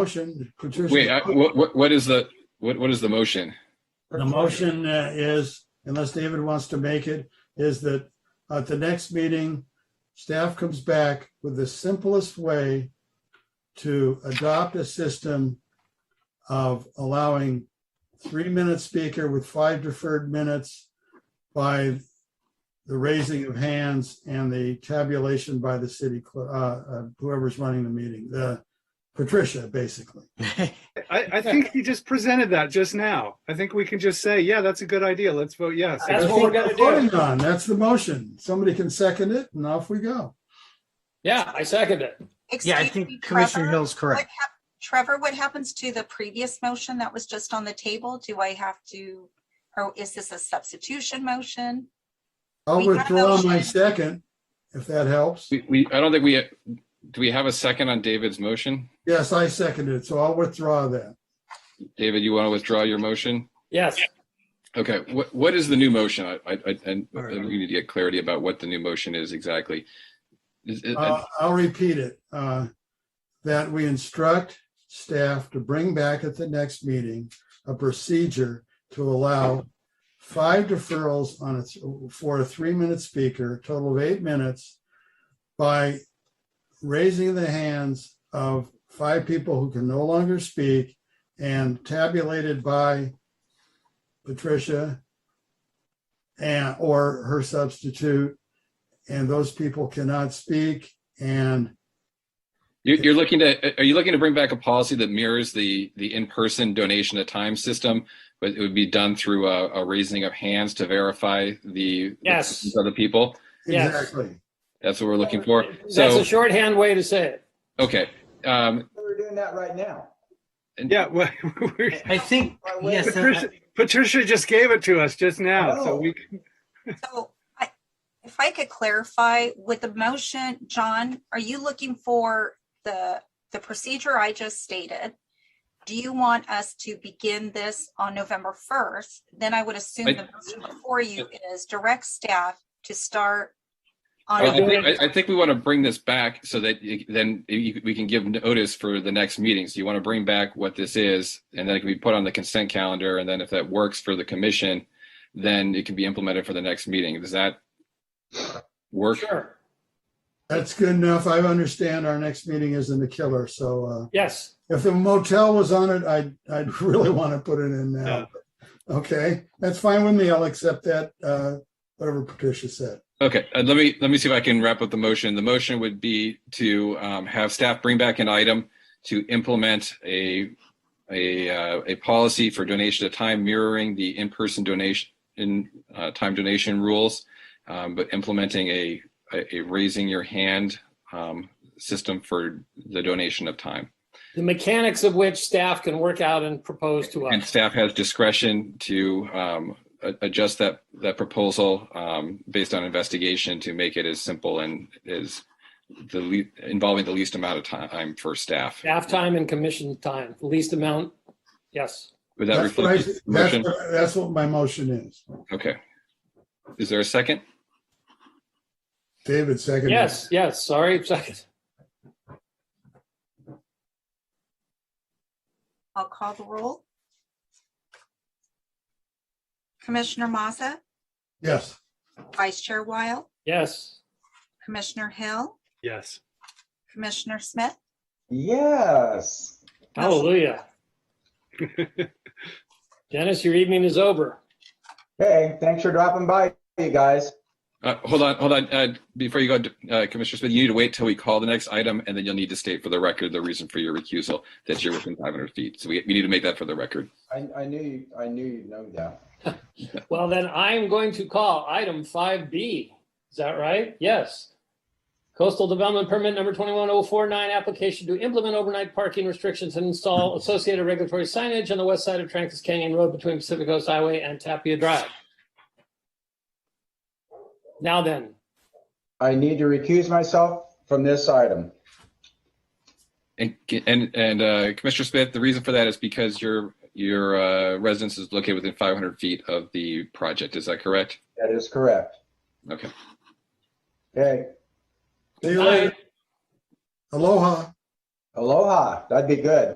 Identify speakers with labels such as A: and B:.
A: Motion,
B: Wait,
A: Patricia,
B: I, what, what- what is the, what, what is the motion?
A: the motion uh, is, unless David wants to make it, is that at the next meeting, staff comes back with the simplest way to adopt a system of allowing three-minute speaker with five deferred minutes by the raising of hands and the tabulation by the city, cl- uh, uh, whoever's running the meeting, the Patricia, basically.
C: I, I think he just presented that just now. I think we can just say, yeah, that's a good idea. Let's vote yes.
D: That's what we're gonna do.
A: voting on. That's the motion. Somebody can second it and off we go.
D: Yeah, I second it.
E: Yeah, I
F: Excuse me,
E: think Commissioner
F: Trevor,
E: Hill's
F: what
E: correct.
F: hap- Trevor, what happens to the previous motion that was just on the table? Do I have to, or is this a substitution motion?
A: I'll
F: We got a
A: withdraw my
F: motion.
A: second, if that helps.
B: We, we, I don't think we, do we have a second on David's motion?
A: Yes, I seconded it, so I'll withdraw that.
B: David, you want to withdraw your motion?
D: Yes,
B: Okay, what, what is the new motion? I, I, I- and
A: All right.
B: we need to get clarity about what the new motion is exactly. Is it-
A: Uh, I'll repeat it. uh, That we instruct staff to bring back at the next meeting a procedure to allow five deferrals on a, for a three-minute speaker, total of eight minutes, by raising the hands of five people who can no longer speak and tabulated by Patricia and, or her substitute and those people cannot speak. And
B: You're, you're looking to, are you looking to bring back a policy that mirrors the, the in-person donation of time system? But it would be done through a, a raising of hands to verify the. the
D: Yes.
B: presence of the people?
D: Yes.
A: exactly.
B: That's what we're
A: Uh,
B: looking for.
D: that's
B: So,
D: a shorthand way to say it.
B: okay. Um,
G: We're doing that right now.
C: Yeah. well, we're-
H: I think,
G: By way of-
H: yes,
C: Patricia,
H: uh, Oh.
C: Patricia just gave it to us just now. So we,
F: So I, if I could clarify with the motion, John, are you looking for the, the procedure I just stated? Do you want us to begin this on November first? Then I would assume
B: I-
F: the motion before you is direct staff to start on.
B: I I
F: November
B: think, I- I think we want to bring this back so that you- then you- we can give notice for the next meeting. So you want to bring back what this is, and then it can be put on the consent calendar. And then if that works for the commission, then it can be implemented for the next meeting. Does that work?
D: Sure.
A: That's good enough. I understand our next meeting isn't a killer. So uh,
D: Yes.
A: if the motel was on it, I'd, I'd really want to put it in now. Okay, that's fine with me. I'll accept that, uh, whatever Patricia said.
B: Okay, uh, let me, let me see if I can wrap up the motion. The motion would be to um, have staff bring back an item to implement a, a, uh, a policy for donation of time mirroring the in-person donation, in, uh, time donation rules, um, but implementing a, a a raising your hand um, system for the donation of time.
D: The mechanics of which staff can work out and propose to
B: And
D: us.
B: staff has discretion to um, a- adjust that, that proposal um, based on investigation to make it as simple and as the, le- involving the least amount of time for staff.
D: Staff time and commission time, the least amount. Yes.
B: Would that
A: That's what I-
B: reflect
A: that's
B: the motion?
A: what- that's what my motion is.
B: Okay. Is there a second?
A: David seconded. it.
D: Yes, yes. Sorry. Second.
F: I'll call the roll. Commissioner Maza,
A: Yes,
F: Vice Chair Wile,
D: Yes.
F: Commissioner Hill,
C: yes.
F: Commissioner Smith,
G: Yes.
D: Hallelujah. Dennis, your evening is over.
G: Hey, thanks for dropping by, you guys.
B: Uh, Hold on, hold on. Uh, Before you go, uh, Commissioner Smith, you need to wait till we call the next item and then you'll need to state for the record the reason for your recusal, that you're within 500 feet. So we, we need to make that for the record.
G: I, I knew you, I knew you'd know that.
D: Well, then I'm going to call item 5B. Is that right? Yes. Coastal Development Permit Number 21049, application to implement overnight parking restrictions and install associated regulatory signage on the west side of Trancas Canyon Road between Pacific Coast Highway and Tapia Drive. Now then,
G: I need to recuse myself from this item.
B: And, and, and uh, Commissioner Smith, the reason for that is because your, your uh, residence is located within 500 feet of the project. Is that correct?
G: That is correct.
B: Okay.
G: Okay,
A: see you later. Aloha.
G: aloha. That'd be good.